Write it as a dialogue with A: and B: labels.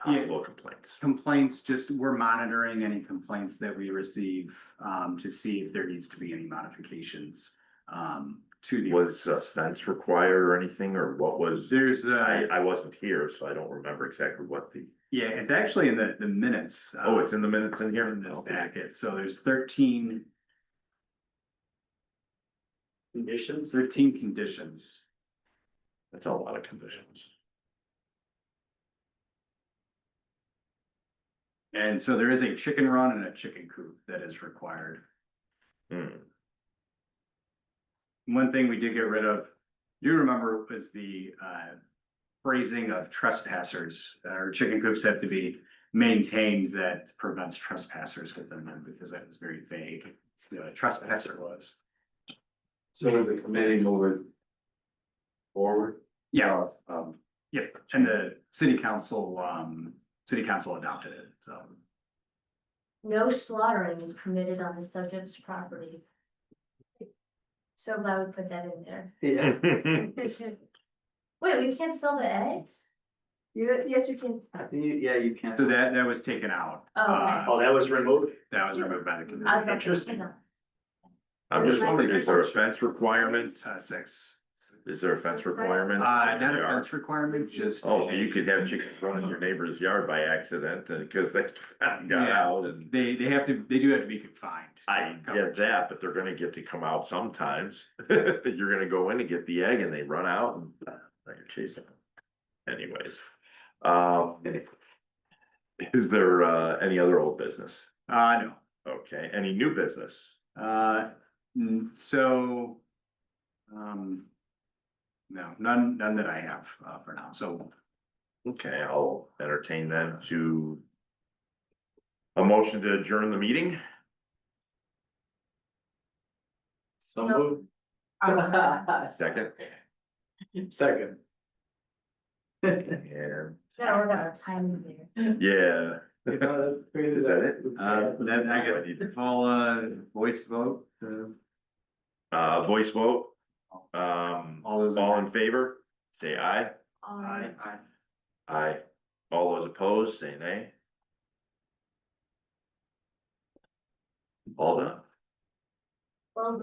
A: possible complaints.
B: Complaints, just we're monitoring any complaints that we receive um to see if there needs to be any modifications um to the.
A: Was uh, a fence required or anything, or what was,
B: There's
A: I,
B: uh
A: I wasn't here, so I don't remember exactly what the,
B: yeah, it's actually in the the minutes. uh,
A: oh, it's in the minutes in here?
B: In this
A: Okay.
B: packet, so there's thirteen. Conditions? Thirteen conditions.
A: That's a lot of conditions.
B: And so there is a chicken run and a chicken coop that is required.
A: Hmm,
B: One thing we did get rid of, you remember, was the uh. Phrasing of trespassers, uh, or chicken coops have to be maintained that prevents trespassers within them, because that was very vague. It's The trespasser was,
C: So the committee moving forward?
B: yeah,
C: Um,
B: yeah, and the city council, um, city council adopted it, so.
D: No slaughtering is permitted on the subject's property. So I would put that in there.
E: Yeah,
D: Wait, we can't sell the eggs?
E: you,
D: Yes, we can.
E: you, yeah, you can't.
B: So that, that was taken out.
D: Oh, okay.
B: Uh,
E: Oh, that was removed?
B: That was removed by the committee.
D: I was about to-
E: Interesting.
A: I'm just wondering, is there a fence requirement?
B: Uh, six.
A: Is there a fence
B: Uh,
A: requirement?
B: not a fence requirement, just.
A: Oh, you could have chickens run in your neighbor's yard by accident, and, cause they got
B: Yeah.
A: out and.
B: They, they have to, they do have to be confined.
A: I get that, but they're gonna get to come out sometimes. You're gonna go in and get the egg and they run out and uh, now you're chasing them. Anyways, um. Is there uh any other old business?
B: Uh, no.
A: Okay, any new business?
B: Uh, mm, so, um, no, none, none that I have, uh, for now, so,
A: Okay, I'll entertain them to. A motion to adjourn the meeting?
C: So moved.
A: Second,
C: Second.
A: and
D: Gotta work out our timing there.
A: yeah,
C: Is
A: is that it?
B: uh, then I got to call a voice vote, uh,
A: Uh, voice vote? Um,
B: all those.
A: all in favor? Say aye.
D: All
B: Aye,
D: right.
B: aye.
A: Aye. All those opposed, say nay. All done.
D: Well,